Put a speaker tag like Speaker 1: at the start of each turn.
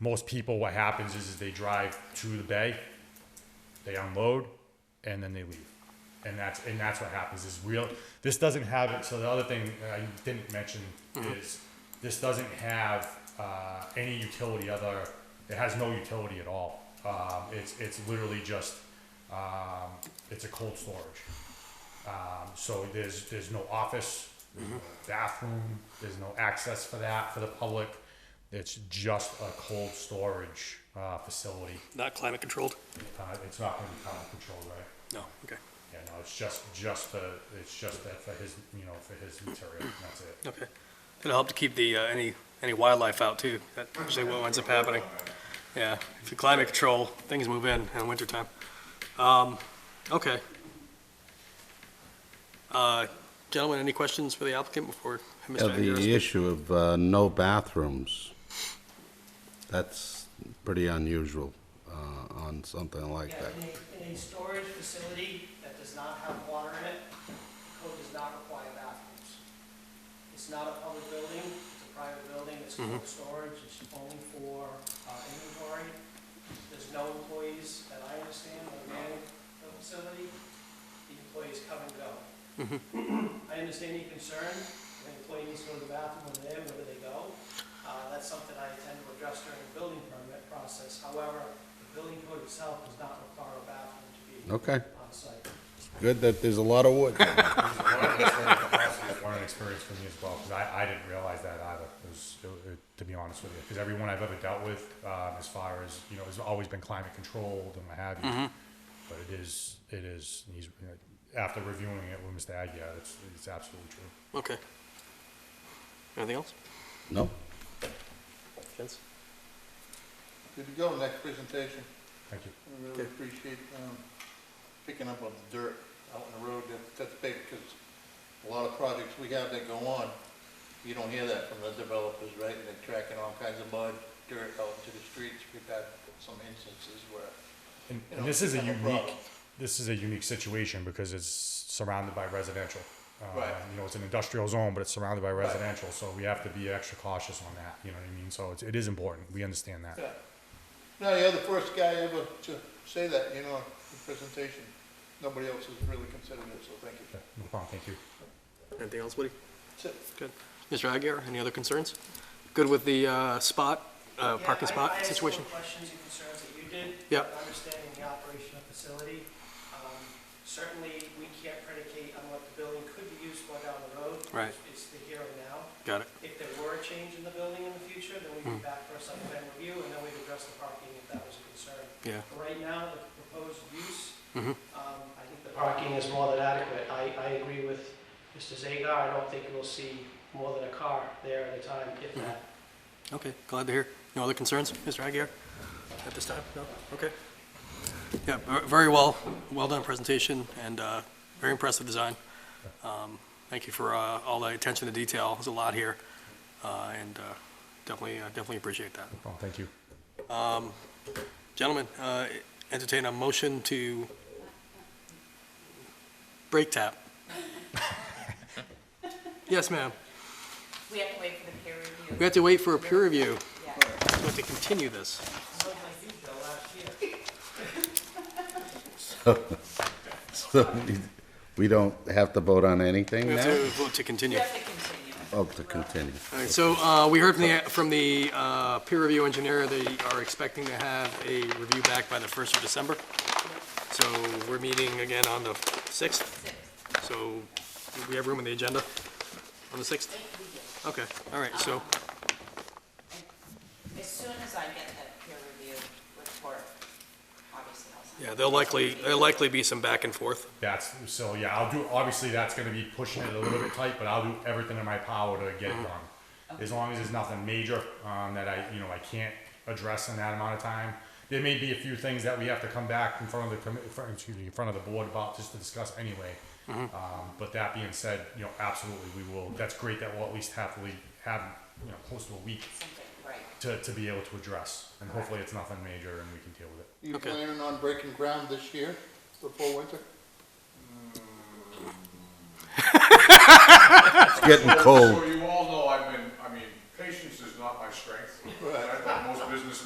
Speaker 1: most people, what happens is, is they drive to the bay, they unload, and then they leave. And that's, and that's what happens is real, this doesn't have it, so the other thing I didn't mention is, this doesn't have, uh, any utility other, it has no utility at all. Um, it's, it's literally just, um, it's a cold storage. Um, so there's, there's no office, there's no bathroom, there's no access for that for the public. It's just a cold storage, uh, facility.
Speaker 2: Not climate controlled?
Speaker 1: Uh, it's not gonna be climate controlled, right?
Speaker 2: No, okay,
Speaker 1: Yeah, no, it's just, just the, it's just that for his, you know, for his material, and that's it.
Speaker 2: okay. It'll help to keep the, uh, any, any wildlife out too. That's usually what ends up happening. Yeah, if you climate control, things move in in wintertime. Um, okay. Uh, gentlemen, any questions for the applicant before? Mr.
Speaker 3: Yeah, the
Speaker 2: Aguirre?
Speaker 3: issue of uh, no bathrooms, that's pretty unusual uh, on something like
Speaker 4: Yeah,
Speaker 3: that.
Speaker 4: in a, in a storage facility that does not have water in it, code does not require bathrooms. It's not a public building, it's a private building, it's
Speaker 3: Mm-hmm.
Speaker 4: cold storage, it's only for, uh, inventory. There's no employees that I understand that man the facility, the employees come and go.
Speaker 2: Mm-hmm.
Speaker 4: I understand your concern, the employee needs to go to the bathroom when they're there, where do they go? Uh, that's something I intend to address during the building permit process. However, the building code itself does not require a bathroom to be
Speaker 3: Okay,
Speaker 4: on site.
Speaker 3: good that there's a lot of wood.
Speaker 1: Learning experience for me as well, because I, I didn't realize that either, it was, it- it- to be honest with you. Because everyone I've ever dealt with, um, as far as, you know, has always been climate controlled and what have you. But it is, it is, he's, after reviewing it with Mr. Aguirre, it's, it's absolutely true.
Speaker 2: Okay. Anything else?
Speaker 3: No?
Speaker 2: Gents?
Speaker 5: Good to go, next presentation.
Speaker 1: Thank you.
Speaker 5: We really appreciate um, picking up on the dirt out in the road. That- That's big, because a lot of projects we have that go on, you don't hear that from the developers, right? They're tracking all kinds of mud, dirt out into the streets. We've had some instances where,
Speaker 1: And,
Speaker 5: You
Speaker 1: and
Speaker 5: know,
Speaker 1: this is a
Speaker 5: have a
Speaker 1: unique,
Speaker 5: problem.
Speaker 1: this is a unique situation because it's surrounded by residential. Uh,
Speaker 5: Right.
Speaker 1: You know, it's an industrial zone, but it's surrounded by residential, so we have to be extra cautious on that, you know what I mean? So it's, it is important, we understand that.
Speaker 5: yeah. No, you're the first guy ever to say that, you know, in presentation. Nobody else has really considered it, so thank you.
Speaker 1: Yeah, No problem, thank you.
Speaker 2: Anything else, Woody?
Speaker 5: That's it.
Speaker 2: Good. Mr. Aguirre, any other concerns? Good with the, uh, spot, uh,
Speaker 4: Yeah,
Speaker 2: parking
Speaker 4: I- I
Speaker 2: spot
Speaker 4: had some
Speaker 2: situation?
Speaker 4: questions and concerns that you did.
Speaker 2: Yeah.
Speaker 4: Understanding the operation of the facility. Um, Certainly, we can't predicate on what the building could be used for down the road.
Speaker 2: Right.
Speaker 4: It's the here and now.
Speaker 2: Got it.
Speaker 4: If there were a change in the building in the future, then we'd be back for a site plan review, and then we'd address the parking if that was a concern.
Speaker 2: Yeah.
Speaker 4: But Right now, the proposed use, um, I think the parking is more than adequate. I, I agree with Mr. Zagar, I don't think we'll see more than a car there at a time, if that.
Speaker 2: Okay, glad to hear. No other concerns, Mr. Aguirre, at this time? No? Okay. Yeah, ver- very well, well done presentation and uh, very impressive design. Um, Thank you for uh, all the attention to detail. There's a lot here, uh, and uh, definitely, uh, definitely appreciate that.
Speaker 1: Well, thank you.
Speaker 2: Gentlemen, uh, entertain a motion to break tap. Yes, ma'am.
Speaker 6: We have to wait for the peer review.
Speaker 2: We have to wait for a peer review.
Speaker 6: Yeah.
Speaker 2: So we have to continue this.
Speaker 6: Oh,
Speaker 4: Something like you, Bill, last year.
Speaker 3: So We don't have to vote on anything
Speaker 2: We have
Speaker 3: now?
Speaker 2: to vote to
Speaker 6: We
Speaker 2: continue.
Speaker 6: have to continue.
Speaker 3: Oh, to continue.
Speaker 2: All right, so uh, we heard from the, from the uh, peer review engineer, they are expecting to have a review back by the 1st of December. So we're meeting again on the 6th,
Speaker 6: Six.
Speaker 2: so do we have room on the agenda on the 6th? Okay, all right, so,
Speaker 6: As soon as I get that peer review report, obviously I'll send it.
Speaker 2: yeah, there'll likely, there'll likely be some back and forth.
Speaker 1: That's, so yeah, I'll do, obviously, that's gonna be pushing it a little bit tight, but I'll do everything in my power to get it done. As long as there's nothing major, um, that I, you know, I can't address in that amount of time. There may be a few things that we have to come back in front of the, commi- in front- excuse me, in front of the board about, just to discuss anyway. Um, but that being said, you know, absolutely, we will, that's great that we'll at least have, we have, you know, close to a week
Speaker 6: Something,
Speaker 1: to,
Speaker 6: right.
Speaker 1: to be able to address, and hopefully it's nothing major and we can deal with it.
Speaker 5: You
Speaker 2: Okay.
Speaker 5: planning on breaking ground this year, before winter?
Speaker 3: It's getting cold.
Speaker 7: So you all know I've been, I mean, patience is not my strength. And I thought most business